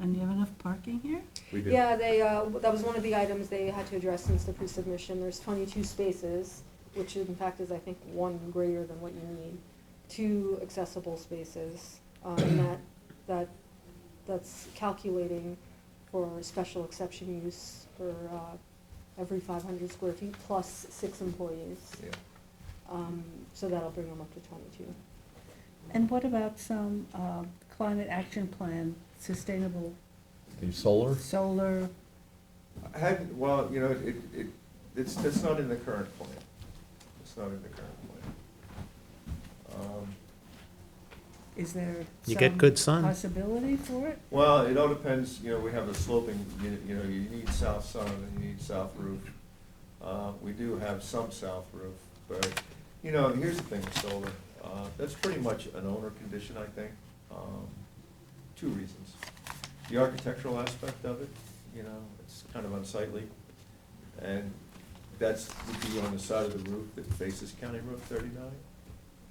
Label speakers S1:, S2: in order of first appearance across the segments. S1: And you have enough parking here?
S2: We do.
S3: Yeah, they, uh, that was one of the items they had to address since the pre-submission. There's twenty-two spaces, which in fact is, I think, one greater than what you need. Two accessible spaces, um, and that, that, that's calculating for special exception use for, uh, every five hundred square feet plus six employees.
S2: Yeah.
S3: Um, so that'll bring them up to twenty-two.
S1: And what about some uh, climate action plan, sustainable
S4: The solar?
S1: solar?
S2: I had, well, you know, it, it, it's, it's not in the current plan. It's not in the current plan. Um,
S1: Is there
S5: You get
S1: some
S5: good sun.
S1: Possibility for it?
S2: Well, it all depends, you know, we have a sloping, you, you know, you need south sun and you need south roof. Uh, we do have some south roof, but, you know, here's the thing with solar, uh, that's pretty much an owner condition, I think. Um, Two reasons. The architectural aspect of it, you know, it's kind of unsightly. And that's, would be on the side of the roof that faces County Route thirty-nine.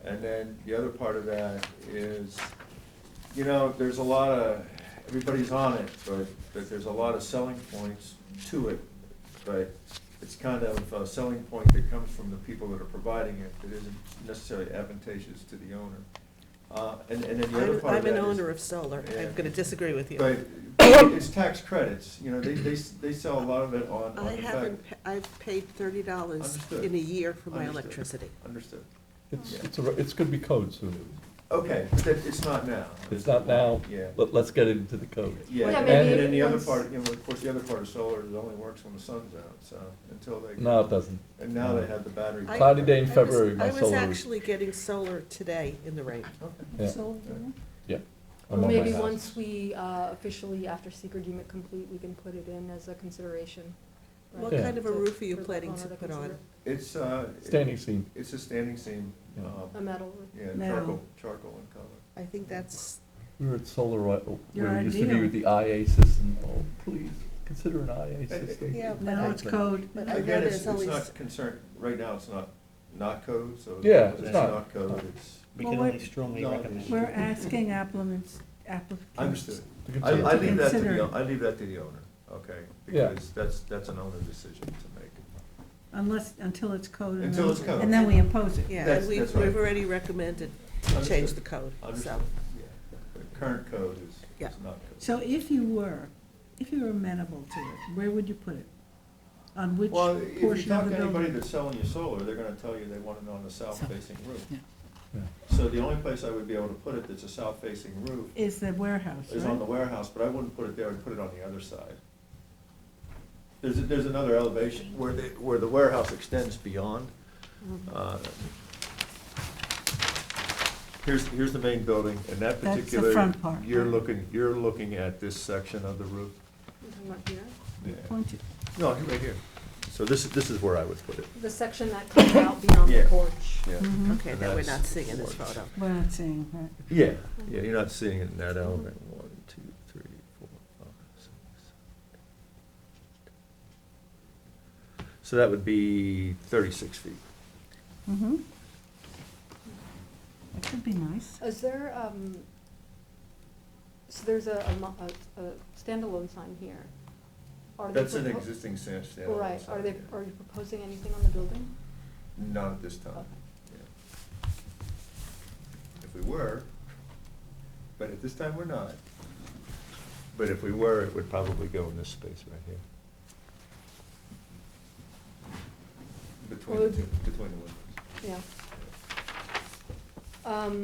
S2: And then the other part of that is, you know, there's a lot of, everybody's on it, but, but there's a lot of selling points to it. But it's kind of a selling point that comes from the people that are providing it, that isn't necessarily advantageous to the owner. Uh, and, and then the other
S6: I'm,
S2: part of
S6: I'm
S2: that
S6: an
S2: is.
S6: owner of solar.
S2: Yeah.
S6: I'm gonna disagree with you.
S2: But it's tax credits, you know, they, they, s- they sell a lot of it on,
S6: I
S2: on the back.
S6: Oh, haven't, pa- I've paid thirty dollars
S2: Understood.
S6: in a year for my
S2: Understood.
S6: electricity.
S2: Understood.
S4: It's,
S2: Yeah.
S4: it's, a- it's gonna be code soon.
S2: Okay, but that, it's not now.
S4: It's not now,
S2: Yeah.
S4: but let's get it into the code.
S2: Yeah,
S3: Well, yeah,
S2: and
S3: maybe
S2: then the other
S3: once-
S2: part, you know, of course, the other part of solar is it only works when the sun's out, so until they.
S4: No, it doesn't.
S2: And now they have the battery.
S6: I-
S4: Cloudy day in
S6: I was-
S4: February, my
S6: I was
S4: solar.
S6: actually getting solar today in the rain.
S2: Okay.
S4: Yeah.
S1: Solar?
S4: Yeah.
S3: Or
S4: I'm on my
S3: maybe
S4: house.
S3: once we uh, officially, after secret agreement complete, we can put it in as a consideration. right?
S6: What
S4: Yeah.
S6: kind of a
S3: To-
S6: roof are you
S3: for the
S6: planning to
S3: owner
S6: put on?
S3: consider.
S2: It's, uh. it-
S4: Standing seam.
S2: It's a standing seam,
S4: Yeah.
S3: A
S2: um,
S3: metal roof.
S2: yeah,
S1: Now.
S2: charcoal, charcoal in color.
S6: I think that's,
S4: We were at Solar, Oil,
S1: Your
S4: where we used to be
S1: ideal.
S4: with the IA system. Oh, please, consider an IA
S2: Uh,
S4: system.
S6: yeah, but
S1: No,
S6: I,
S1: it's code.
S6: but I know
S2: Again, it's,
S6: there's
S2: it's
S6: always,
S2: not concerned, right now, it's not, not code, so.
S4: Yeah,
S2: It's
S5: it's
S4: not.
S2: not code, it's,
S5: We
S1: Well,
S5: can
S1: we're-
S5: only strongly
S2: No, it
S5: recommend.
S2: is.
S1: We're asking applicants, applicants.
S2: understood.
S4: To
S2: I,
S4: consider
S2: I
S4: it.
S2: leave that to the,
S1: Consider.
S2: I leave that to the owner, okay?
S4: Yeah.
S2: Because that's, that's an owner decision to make.
S1: Unless, until it's code. and
S2: Until
S1: then-
S2: it's code.
S1: And then we impose it.
S6: yeah,
S2: That's-
S6: and we've,
S2: that's right.
S6: we've already recommended to change
S2: Understood.
S6: the code, so.
S2: Understood, yeah. The current code is,
S6: Yeah.
S2: is not code.
S1: So if you were, if you were amenable to it, where would you put it? On which
S2: Well, if you
S1: portion of
S2: talk
S1: the
S2: to anybody
S1: building?
S2: that's selling you solar, they're gonna tell you they want it on the south-facing roof.
S7: yeah.
S4: Yeah.
S2: So the only place I would be able to put it that's a south-facing roof
S1: Is the warehouse,
S2: is on the
S1: right?
S2: warehouse, but I wouldn't put it there, I'd put it on the other side. There's, a- there's another elevation where the, where the warehouse extends beyond. Uh, Here's, here's the main building, and that
S1: That's the
S2: particular,
S1: front part,
S2: you're
S1: right.
S2: looking, you're looking at this section of the roof.
S3: You talking about here?
S2: Yeah.
S1: Point it.
S2: No, right here. So this, is this is where I would put it.
S3: The section that comes out beyond the
S2: Yeah.
S3: porch.
S2: Yeah.
S1: Mhm.
S6: Okay, now we're not
S2: That's-
S6: seeing in this photo.
S1: We're not saying that.
S2: Yeah, yeah, you're not seeing it in that element. One, two, three, four, five, six. seven. So that would be thirty-six feet.
S1: Mm-hmm. That could be nice.
S3: Is there, um, so there's a, a mo- a, a standalone sign here. Are they
S2: That's an
S3: propo-
S2: existing sand standalone.
S3: Right,
S2: sign,
S3: are they,
S2: yeah.
S3: are you proposing anything on the building?
S2: Not at this time.
S3: Okay.
S2: yeah. If we were, but at this time, we're not. But if we were, it would probably go in this space right here. Between the
S3: Would-
S2: two, between the windows.
S3: Yeah. Um,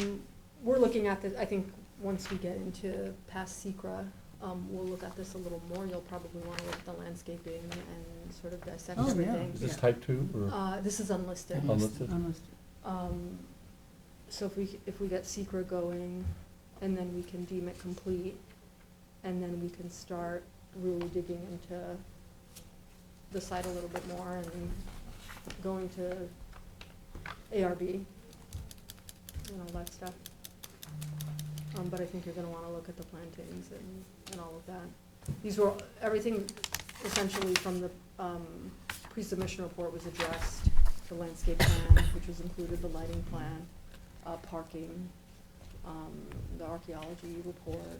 S3: we're looking at this, I think, once we get into past secra, um, we'll look at this a little more, you'll probably wanna look at the landscaping and sort of dissect
S1: Oh, yeah.
S3: everything.
S4: Is this
S6: Yeah.
S4: type two or
S3: Uh, this is unlisted.
S4: unlisted?
S1: Unlisted.
S3: Um, so if we, c- if we get secra going, and then we can deem it complete, and then we can start really digging into the site a little bit more and going to ARB and all that stuff. Um, but I think you're gonna wanna look at the plantings and, and all of that. These were, everything essentially from the, um, pre-submission report was addressed, the landscape plan, which was included, the lighting plan, uh, parking, um, the archaeology report,